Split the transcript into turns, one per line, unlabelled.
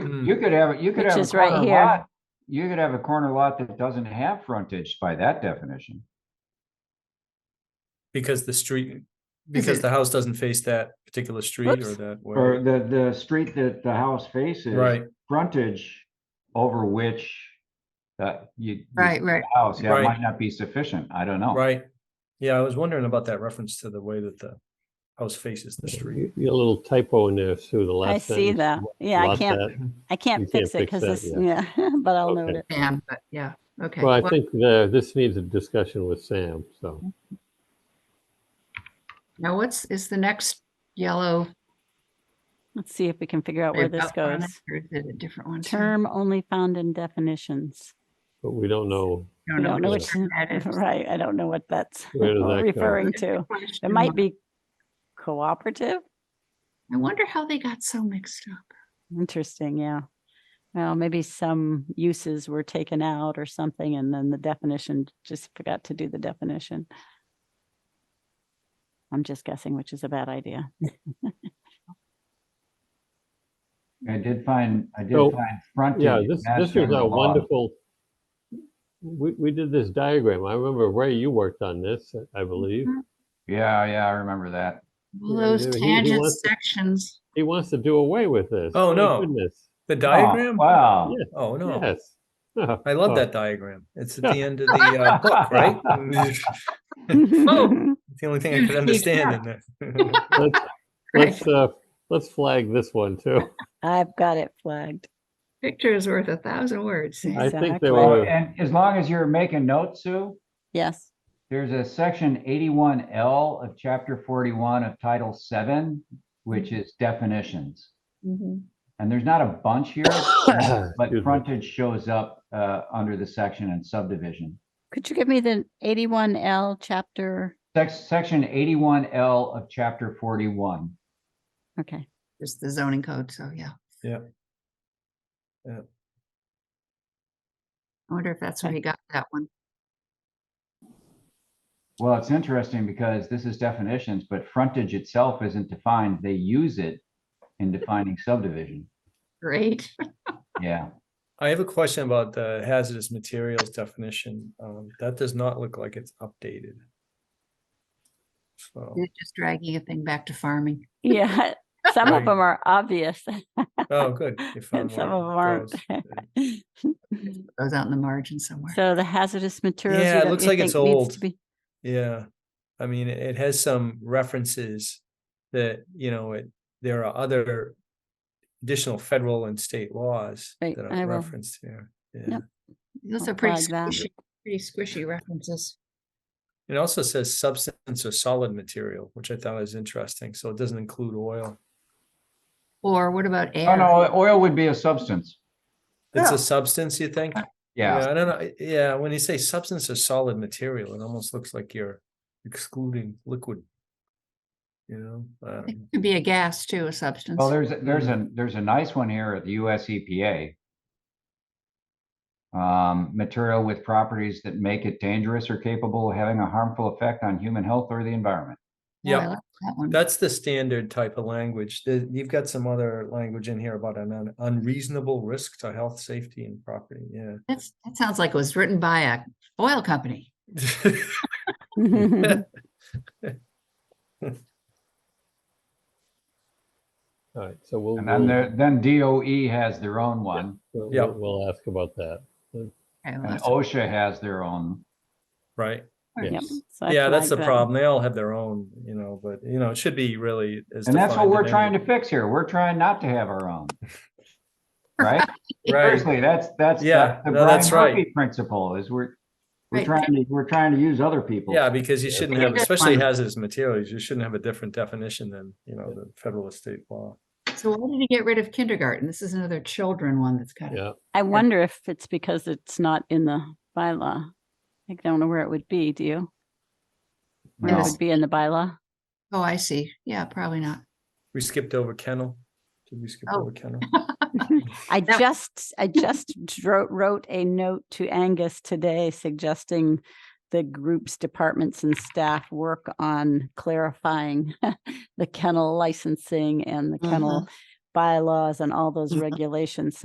Hmm.
You could have, you could
Which
have a
is right
corner
here.
lot. You could have a corner lot that doesn't have frontage by that definition.
because the street, because
it-
the house doesn't face that particular street or
Whoops.
that
Or
way.
the, the street that the house faces.
Right,
Frontage over which, uh, you. you-
Right, right.
House, yeah,
Right.
might not be sufficient. I don't know.
right. Yeah, I was wondering about that reference to the way that the house faces the street.
You- you got a little typo in there, Sue, the last
I see
sentence.
that. Yeah, I
Lot
can't,
that.
I can't
you
fix it
can't
because
fix
this,
that,
yeah, but I'll
Okay.
note it.
Sam, but yeah, okay.
Well, I
well,
think the, this needs a discussion with Sam,
Mm-hmm.
so.
Now what's, is the next yellow?
Let's see if we can figure out where this
up on
goes.
it, Or is it a different one? Sam?
Term only found in definitions.
But we don't know,
I
I don't know
what
which
which,
term that is.
right, I don't know what that's
where does that go?
referring to. It might be cooperative.
I wonder how they got so mixed up.
Interesting, yeah. Well, maybe some uses were taken out or something, and then the definition, just forgot to do the definition. I'm just guessing, which is a bad idea.
I did find, I did
So,
find frontage.
Yeah, this,
not
this was
general
a
law.
wonderful, we, we did this diagram. I remember Ray, you worked on this, I believe.
Mm-hmm.
Mhm.
Yeah, yeah, I remember that.
All
Yeah,
those
he- he
tangent
wants to-
sections.
He wants to do away with this.
Oh,
My
no.
Goodness,
The
Oh,
diagram?
Wow.
Yeah.
Oh, no.
yes. Oh,
I love
oh,
that diagram. It's at the end of the uh, book, right?
Oh.
It's the only thing I could understand in there.
Let's,
Right.
let's, uh, let's flag this one too.
I've got it flagged.
Picture is worth a thousand words. Sam.
I think
Exactly.
there
Well,
were,
And as long as you're making notes, Sue,
Yes,
there's a section eighty-one L of chapter forty-one of title seven, which is definitions.
Mhm.
And there's not a bunch here, but
Excuse me.
frontage shows up uh, under the section and subdivision.
could you give me the eighty-one L chapter?
Sex- Section eighty-one L of chapter forty-one.
Okay,
Just the zoning code, so yeah.
Yeah. Yeah.
I wonder if that's where he got that one.
Well, it's interesting because this is definitions, but frontage itself isn't defined. They use it in defining subdivision.
Great.
Yeah.
I have a question about the hazardous materials definition. Um, that does not look like it's updated. So,
You're Just dragging a thing back to farming.
yeah, some of
Right.
them are obvious.
oh, good. you
And
found
some
one
of them aren't.
those. Uh,
Goes out in the margin somewhere.
So the hazardous materials.
Yeah,
you
it
don't-
looks
you
like it's
think needs
old.
to be-
Yeah, I mean, it it has some references that, you know, it, there are other additional federal and state laws
Right,
that are
I will-
referenced here. Yeah.
Those
I'll
are pretty
flag that.
squishy, pretty squishy references.
It also says substance or solid material, which I thought was interesting. So it doesn't include oil.
Or what about air?
Oh, no, oil would be a substance.
It's
Yeah.
Oh.
a substance, you think?
Yeah.
I don't know. Yeah, when you say substance or solid material, it almost looks like you're excluding liquid. You know, Um, I don't
It
know.
could be a gas too, a substance.
Well, there's, a- there's a, there's a nice one here at the E US EPA. Um, material with properties that make it dangerous or capable of having a harmful effect on human health or the environment.
Oh, I
yeah.
like That one.
That's the standard type of language. The- You've got some other language in here about an un- unreasonable risk to health, safety, and property. Yeah.
That's, that sounds like it was written by a oil company.
all right, so we'll.
And then
we'll-
there, then DOE has their own one
we'll-
Yeah.
we'll- We'll ask about that.
Oh,
Okay, well,
and
that's-
OSHA has their own.
Right.
Yep,
Yes.
so I
yeah, that's
flagged
the
that.
problem. They all have their own, you know, but you know, it should be really as
And that's what
defined in
we're
any-
trying to fix here. We're trying not to have our own. Right?
Right.
Seriously, that's, that's.
Yeah,
that's the
no, that's
Brian Murphy
right.
Principle is we're, we're
Right.
trying to, we're trying to use other people.
Yeah, because you shouldn't have,
Standard
especially
one.
hazardous materials, you shouldn't have a different definition than, you know, the federal estate law.
So why did he get rid of kindergarten? This is another children one that's kind of,
Yeah,
I wonder if it's because it's not in the bylaw. I don't know where it would be, do you? Where
No.
it would be in the bylaw?
oh, I see. Yeah, probably not.
We skipped over kennel. Did we skip
Oh.
over kennel?
I
That-
just, I just wrote, wrote a note to Angus today suggesting the group's departments and staff work on clarifying the kennel licensing and the
Uh-huh.
kennel bylaws and all those
Mhm.
regulations.